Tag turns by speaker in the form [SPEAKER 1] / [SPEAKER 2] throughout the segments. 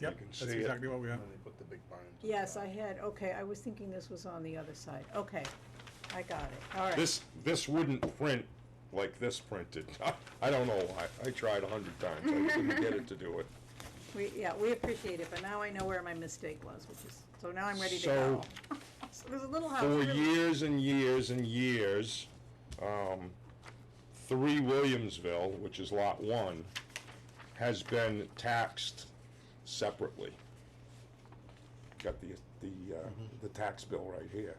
[SPEAKER 1] Yep,
[SPEAKER 2] can
[SPEAKER 1] that's
[SPEAKER 2] see it
[SPEAKER 1] exactly what we have.
[SPEAKER 2] When they put the big barns. on
[SPEAKER 3] Yes,
[SPEAKER 2] top.
[SPEAKER 3] I had, okay, I was thinking this was on the other side, okay, I got it, all right.
[SPEAKER 2] This, this wouldn't print like this printed. I don't know why. I tried a hundred times. I couldn't get it to do it.
[SPEAKER 3] We, yeah, we appreciate it, but now I know where my mistake was, which is, so now I'm ready to go. So There's a little house.
[SPEAKER 2] For
[SPEAKER 3] really-
[SPEAKER 2] years and years and years, um, three Williamsville, which is lot one, has been taxed separately. Got the, the, uh, the tax bill right here.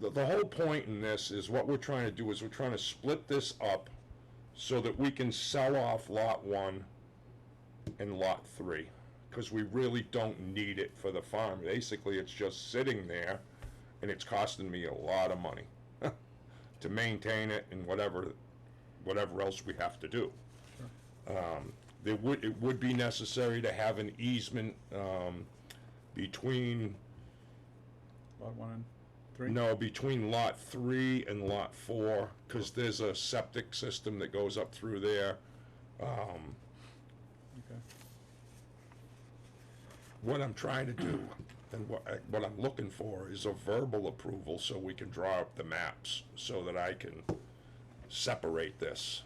[SPEAKER 2] The, the whole point in this is what we're trying to do is we're trying to split this up so that we can sell off lot one and lot three, because we really don't need it for the farm. Basically, it's just sitting there, and it's costing me a lot of money to maintain it and whatever, whatever else we have to do. Um, There would, it would be necessary to have an easement, um, between,
[SPEAKER 1] Lot one and three?
[SPEAKER 2] no, between lot three and lot four, because there's a septic system that goes up through there. Um,
[SPEAKER 1] Okay.
[SPEAKER 2] what I'm trying to do and what, I- what I'm looking for is a verbal approval so we can draw up the maps so that I can separate this.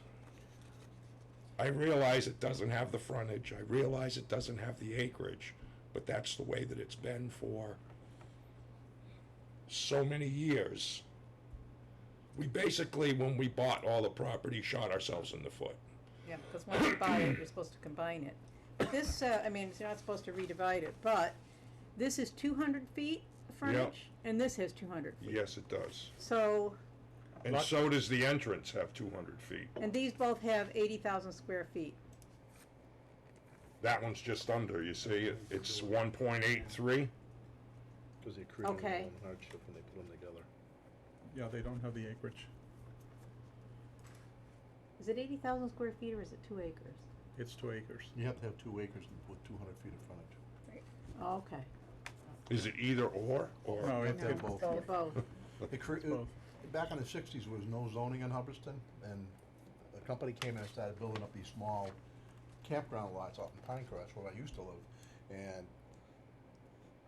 [SPEAKER 2] I realize it doesn't have the frontage, I realize it doesn't have the acreage, but that's the way that it's been for so many years. We basically, when we bought all the property, shot ourselves in the foot.
[SPEAKER 3] Yeah, because once you buy it, you're supposed to combine it. But this, uh, I mean, it's not supposed to redivide it, but this is two hundred feet frontage, and this has two hundred feet.
[SPEAKER 2] Yes, it does.
[SPEAKER 3] So,
[SPEAKER 2] And
[SPEAKER 1] Lot-
[SPEAKER 2] so does the entrance have two hundred feet.
[SPEAKER 3] and these both have eighty thousand square feet.
[SPEAKER 2] That one's just under, you see, it- it's one point eight three.
[SPEAKER 4] Because they created
[SPEAKER 3] Okay.
[SPEAKER 4] their own hardship when they put them together.
[SPEAKER 1] Yeah, they don't have the acreage.
[SPEAKER 3] Is it eighty thousand square feet or is it two acres?
[SPEAKER 1] It's two acres.
[SPEAKER 4] You have to have two acres with two hundred feet of frontage.
[SPEAKER 3] Oh, okay.
[SPEAKER 2] Is it either or,
[SPEAKER 1] No,
[SPEAKER 2] or?
[SPEAKER 1] it,
[SPEAKER 4] No.
[SPEAKER 1] it,
[SPEAKER 4] both.
[SPEAKER 3] They're both.
[SPEAKER 4] They cre- it-
[SPEAKER 1] both.
[SPEAKER 4] back in the sixties, there was no zoning in Hubbardston, and a company came in and started building up these small campground lots out in Pinecrest, where I used to live, and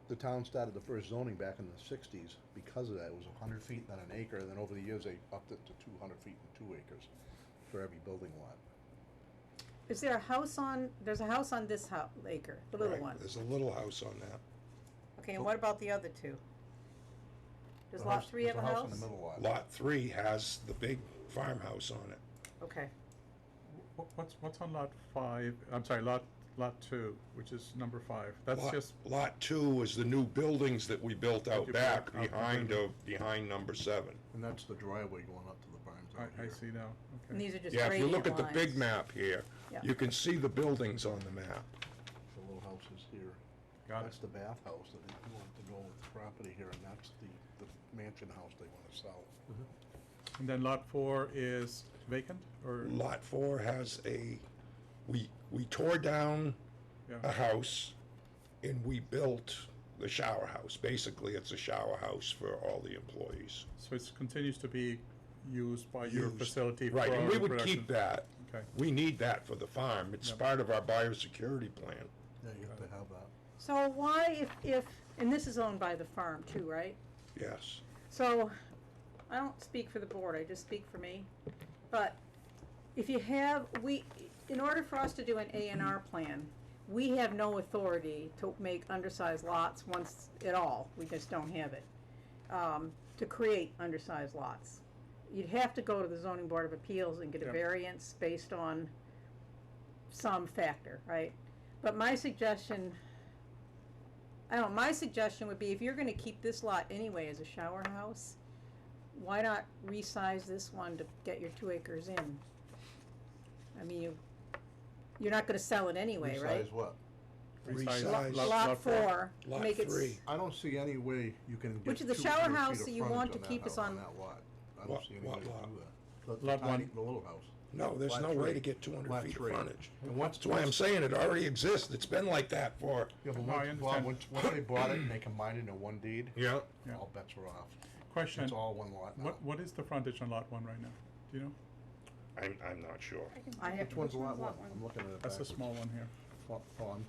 [SPEAKER 4] the town started the first zoning back in the sixties because of that. It was a hundred feet, then an acre, and then over the years, they upped it to two hundred feet and two acres for every building lot.
[SPEAKER 3] Is there a house on, there's a house on this hou- acre, the little
[SPEAKER 2] Right,
[SPEAKER 3] one?
[SPEAKER 2] There's a little house on that.
[SPEAKER 3] Okay, and what about the other two? Does
[SPEAKER 4] The
[SPEAKER 3] lot
[SPEAKER 4] house-
[SPEAKER 3] three have
[SPEAKER 4] there's
[SPEAKER 3] a house?
[SPEAKER 4] in the middle lot.
[SPEAKER 2] Lot three has the big farmhouse on it.
[SPEAKER 3] Okay,
[SPEAKER 1] Wh- what's, what's on lot five, I'm sorry, lot, lot two, which is number five? That's
[SPEAKER 2] Lot-
[SPEAKER 1] just,
[SPEAKER 2] Lot two is the new buildings that we built
[SPEAKER 1] That
[SPEAKER 2] out
[SPEAKER 1] you
[SPEAKER 2] back
[SPEAKER 1] built out
[SPEAKER 2] behind,
[SPEAKER 1] behind.
[SPEAKER 2] of behind number seven.
[SPEAKER 4] And that's the driveway going up to the barns
[SPEAKER 1] I,
[SPEAKER 4] over
[SPEAKER 1] I
[SPEAKER 4] here.
[SPEAKER 1] see now,
[SPEAKER 3] and
[SPEAKER 1] okay.
[SPEAKER 3] these are just
[SPEAKER 2] Yeah, if you look
[SPEAKER 3] gradient
[SPEAKER 2] at the big
[SPEAKER 3] lines.
[SPEAKER 2] map here,
[SPEAKER 3] Yeah.
[SPEAKER 2] you can see the buildings on the map.
[SPEAKER 4] The little house is here.
[SPEAKER 1] Got
[SPEAKER 4] That's
[SPEAKER 1] it.
[SPEAKER 4] the bathhouse that they want to go with the property here, and that's the, the mansion house they wanna sell.
[SPEAKER 1] And then lot four is vacant, or,
[SPEAKER 2] Lot four has a, we, we tore down a
[SPEAKER 1] yeah,
[SPEAKER 2] house and we built the shower house. Basically, it's a shower house for all the employees.
[SPEAKER 1] so it continues to be used by your
[SPEAKER 2] used.
[SPEAKER 1] facility for
[SPEAKER 2] Right, and we
[SPEAKER 1] our
[SPEAKER 2] would
[SPEAKER 1] production?
[SPEAKER 2] keep that.
[SPEAKER 1] Okay.
[SPEAKER 2] We need that for the farm. It's
[SPEAKER 1] Yep.
[SPEAKER 2] part of our biosecurity plan.
[SPEAKER 4] Yeah, you have to have that.
[SPEAKER 3] So why if, if, and this is owned by the firm too, right?
[SPEAKER 2] Yes.
[SPEAKER 3] So, I don't speak for the board, I just speak for me, but if you have, we, in order for us to do an A and R plan, we have no authority to make undersized lots once at all, we just don't have it, um, to create undersized lots. You'd have to go to the zoning board of appeals and get a
[SPEAKER 1] Yeah.
[SPEAKER 3] variance based on some factor, right? But my suggestion, I don't, know, my suggestion would be if you're gonna keep this lot anyway as a shower house, why not resize this one to get your two acres in? I mean, you, you're not gonna sell it anyway, right?
[SPEAKER 4] Besides what?
[SPEAKER 1] Resize
[SPEAKER 2] Resize.
[SPEAKER 1] lot-
[SPEAKER 3] Lot four,
[SPEAKER 2] Lot
[SPEAKER 3] make it, s-
[SPEAKER 2] three.
[SPEAKER 4] I don't see any way you can get
[SPEAKER 3] Which
[SPEAKER 4] two
[SPEAKER 3] is the
[SPEAKER 4] hundred feet
[SPEAKER 3] shower
[SPEAKER 4] of
[SPEAKER 3] house that
[SPEAKER 4] frontage
[SPEAKER 3] you
[SPEAKER 4] on
[SPEAKER 3] want to
[SPEAKER 4] that
[SPEAKER 3] keep
[SPEAKER 4] house,
[SPEAKER 3] us
[SPEAKER 4] on
[SPEAKER 3] on-
[SPEAKER 4] that lot. I
[SPEAKER 2] What-
[SPEAKER 4] don't see any
[SPEAKER 2] what
[SPEAKER 4] way to do
[SPEAKER 2] lot?
[SPEAKER 4] that. The- the
[SPEAKER 1] Lot
[SPEAKER 4] tiny-
[SPEAKER 1] one.
[SPEAKER 4] The little house.
[SPEAKER 2] No, there's
[SPEAKER 4] Lot
[SPEAKER 2] no way
[SPEAKER 4] three.
[SPEAKER 2] to get two hundred
[SPEAKER 4] Lot
[SPEAKER 2] feet of
[SPEAKER 4] three.
[SPEAKER 2] frontage.
[SPEAKER 4] And once.
[SPEAKER 2] That's why I'm saying it already exists. It's been like that for,
[SPEAKER 4] Yeah, but
[SPEAKER 1] No, I
[SPEAKER 4] once, Bob,
[SPEAKER 1] understand.
[SPEAKER 4] once, once they bought it and they combined it into one deed,
[SPEAKER 2] yeah,
[SPEAKER 1] Yeah.
[SPEAKER 4] all bets are off.
[SPEAKER 1] Question,
[SPEAKER 4] It's all one lot now.
[SPEAKER 1] what, what is the frontage on lot one right now? Do you know?
[SPEAKER 2] I'm, I'm not sure.
[SPEAKER 3] I have
[SPEAKER 4] Which one's lot one? I'm looking at it
[SPEAKER 1] That's a
[SPEAKER 4] backwards.
[SPEAKER 1] small one here.
[SPEAKER 4] Fa- Fawn.